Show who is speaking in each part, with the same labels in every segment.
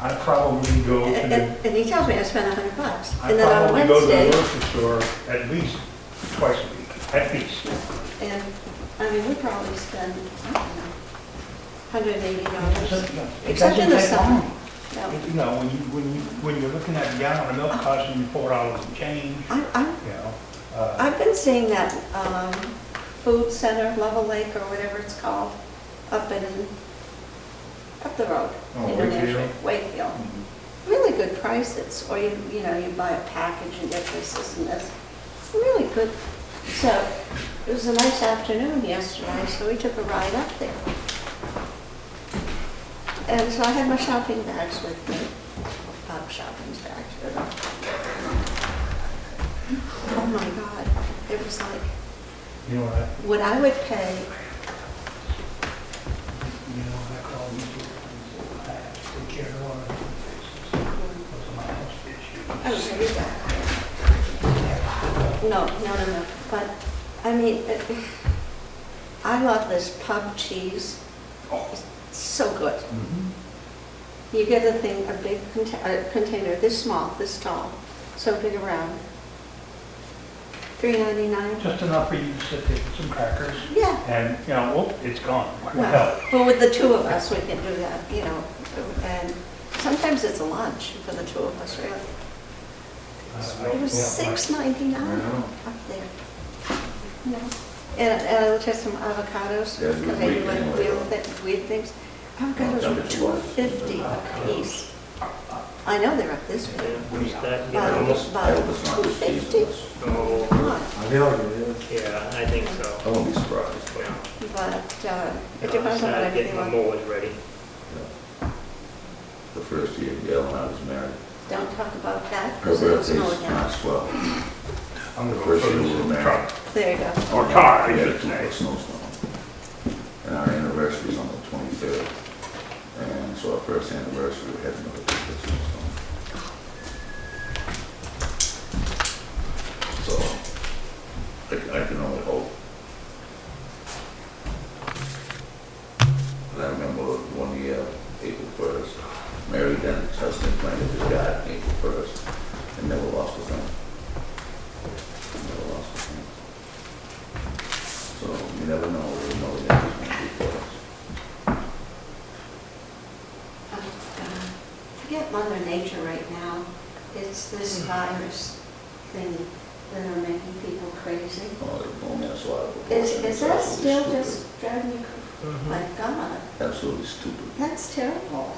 Speaker 1: I probably go to,
Speaker 2: And
Speaker 1: the-
Speaker 2: and- and he tells me I spent a hundred bucks.
Speaker 1: I
Speaker 2: And then on
Speaker 1: probably go to the
Speaker 2: Wednesday,
Speaker 1: grocery store at least twice a week, at least.
Speaker 2: and, I mean, we probably spend, I don't know, hundred and eighty dollars.
Speaker 1: It
Speaker 2: Except
Speaker 1: doesn't
Speaker 2: in the
Speaker 1: take
Speaker 2: summer. Oh.
Speaker 1: long.
Speaker 2: No.
Speaker 1: You know, when you, when you, when you're looking at a gallon of milk costing you four dollars and change,
Speaker 2: I, I,
Speaker 1: you know, uh,
Speaker 2: I've been seeing that, um, food center, Level Lake or whatever it's called, up in, up the road.
Speaker 3: Oh,
Speaker 2: in New Hampshire,
Speaker 3: Wakefield?
Speaker 2: Wakefield. Really good prices, or you, you know, you buy a package and get this, this and this. Really good. So it was a nice afternoon yesterday, so we took a ride up there. And so I had my shopping bags with me, pop shopping bags, you know. Oh my God, it was like,
Speaker 1: you know what I,
Speaker 2: what I would pay,
Speaker 1: you know what I call these people? I have to take care of all the faces. Those are my house issues.
Speaker 2: I was very bad. No, no, no, no, but, I mean, it- I love this pub cheese, It's so good.
Speaker 1: Mm-hmm.
Speaker 2: You get a thing, a big conta- a container, this small, this tall, so big around, three ninety-nine,
Speaker 1: Just enough for you to sit there with some crackers
Speaker 2: yeah.
Speaker 1: and, you know, whoop, it's gone. What the
Speaker 2: Well,
Speaker 1: hell?
Speaker 2: but with the two of us, we can do that, you know, and sometimes it's a lunch for the two of us, really.
Speaker 1: Uh,
Speaker 2: It was
Speaker 1: yeah,
Speaker 2: six
Speaker 3: I
Speaker 2: ninety-nine
Speaker 3: know.
Speaker 2: up there. No, And, and I looked at some avocados,
Speaker 3: Yeah,
Speaker 2: because
Speaker 3: the
Speaker 2: I do
Speaker 3: weed
Speaker 2: like
Speaker 3: thing.
Speaker 2: weird, thi- weird things. Avocados were two fifty a piece. I know they're up this big,
Speaker 4: Who's that?
Speaker 2: but,
Speaker 4: Almost.
Speaker 3: I hope
Speaker 2: but
Speaker 3: it's not
Speaker 2: two
Speaker 3: this
Speaker 2: fifty?
Speaker 3: season.
Speaker 4: Oh,
Speaker 2: But,
Speaker 3: I feel like it is.
Speaker 4: yeah, I think so.
Speaker 3: I won't be surprised.
Speaker 4: Yeah.
Speaker 2: uh, it
Speaker 4: No, I
Speaker 2: depends on what
Speaker 4: started
Speaker 2: I'm
Speaker 4: getting my
Speaker 2: feeling.
Speaker 4: mowers ready.
Speaker 3: The first year Gail and I was married,
Speaker 2: Don't talk about that,
Speaker 3: her
Speaker 2: because it's
Speaker 3: birthday's
Speaker 2: snowing out.
Speaker 3: March 12.
Speaker 1: I'm gonna
Speaker 3: The
Speaker 1: go
Speaker 3: first year
Speaker 1: through
Speaker 3: we were
Speaker 1: this
Speaker 3: married.
Speaker 1: truck.
Speaker 2: There you go.
Speaker 1: Or car,
Speaker 3: We
Speaker 1: I
Speaker 3: had
Speaker 1: should
Speaker 3: two
Speaker 1: say.
Speaker 3: plus snowstorm. And our anniversary's on the 23rd. And so our first anniversary, we had another two plus snowstorm. So I I can only hope. And I remember one year, April 1st, Mary Dennis, husband, planted his garden April 1st and never lost a thing. Never lost a thing. So you never know, you know, the next one's gonna be for us.
Speaker 2: Oh, God. Forget Mother Nature right now. It's this virus thing that are making people crazy.
Speaker 3: Oh, they're blowing us out of the
Speaker 2: Is,
Speaker 3: water.
Speaker 2: is
Speaker 3: It's
Speaker 2: that
Speaker 3: absolutely
Speaker 2: still
Speaker 3: stupid.
Speaker 2: just driving you, cr- my God,
Speaker 3: Absolutely stupid.
Speaker 2: that's terrible.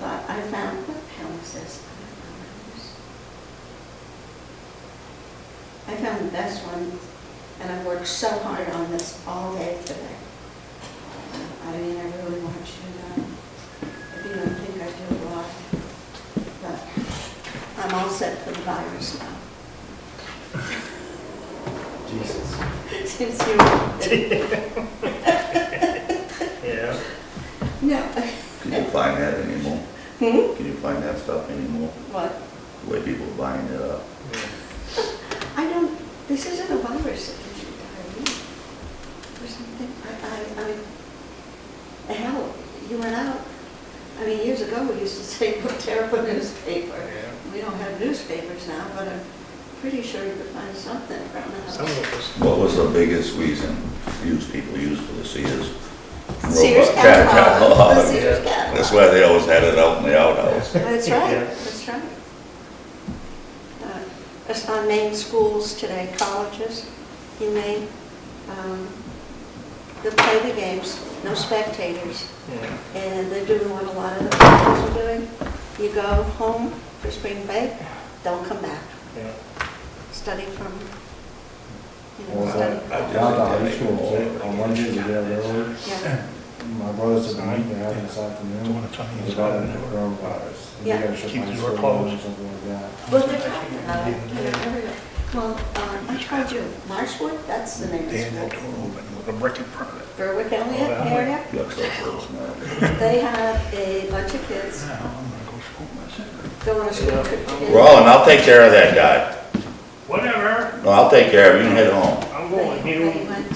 Speaker 2: But I found, what hell is this? I found the best one, and I've worked so hard on this all day today. I mean, I really want you to know, if you don't think I do a lot, but I'm all set for the virus now.
Speaker 3: Jesus.
Speaker 2: Since you,
Speaker 4: Yeah.
Speaker 2: no,
Speaker 3: Can you find that anymore?
Speaker 2: hmm,
Speaker 3: Can you find that stuff anymore?
Speaker 2: what?
Speaker 3: The way people are buying it up?
Speaker 4: Yeah.
Speaker 2: I don't, this isn't a virus that gives you diarrhea or something. I, I, I mean, hell, you went out, I mean, years ago, we used to say, "What terrible newspaper.
Speaker 4: Yeah.
Speaker 2: We don't have newspapers now, but I'm pretty sure you could find something around the house.
Speaker 4: Some of us.
Speaker 3: What was the biggest reason used people used for the Sears?
Speaker 2: Sears
Speaker 3: robot cat
Speaker 2: catalog, the
Speaker 3: catalog?
Speaker 2: Sears catalog.
Speaker 3: That's why they always had it out in the outhouse.
Speaker 2: That's right,
Speaker 4: Yeah.
Speaker 2: that's right. Uh, It's on Maine schools today, colleges in Maine. um, They play the games, no spectators,
Speaker 4: Yeah.
Speaker 2: and they're doing what a lot of the colleges are doing. You go home for spring break, don't come back.
Speaker 4: Yeah.
Speaker 2: Study from, you know,
Speaker 5: Well,
Speaker 2: study.
Speaker 3: I
Speaker 5: I
Speaker 3: just-
Speaker 5: down to high school, but on Mondays, we have railroad.
Speaker 2: Yeah,
Speaker 5: My brothers have been meeting out this afternoon. It's about the coronavirus. and they
Speaker 2: Yeah.
Speaker 5: gotta shut
Speaker 1: Keep
Speaker 5: my
Speaker 1: the door
Speaker 5: school down or
Speaker 1: closed.
Speaker 5: Something like that.
Speaker 2: well, they're talking about it, you know, everywhere. uh, Well, um, I tried you, Marshwood, that's the name of
Speaker 1: They had
Speaker 2: the
Speaker 1: that
Speaker 2: school.
Speaker 1: door open with a brick in front of it.
Speaker 2: Berwick Elliott area.
Speaker 3: Looks like it was not.
Speaker 2: They have a bunch of kids
Speaker 1: Now, I'm gonna go smoke my cigarette.
Speaker 2: go on a school trip together.
Speaker 3: Roland, I'll take care of that guy.
Speaker 4: Whatever,
Speaker 3: No, I'll take care of it. You can head home.
Speaker 4: I'm
Speaker 2: They
Speaker 4: going
Speaker 2: they
Speaker 4: here.
Speaker 2: went um,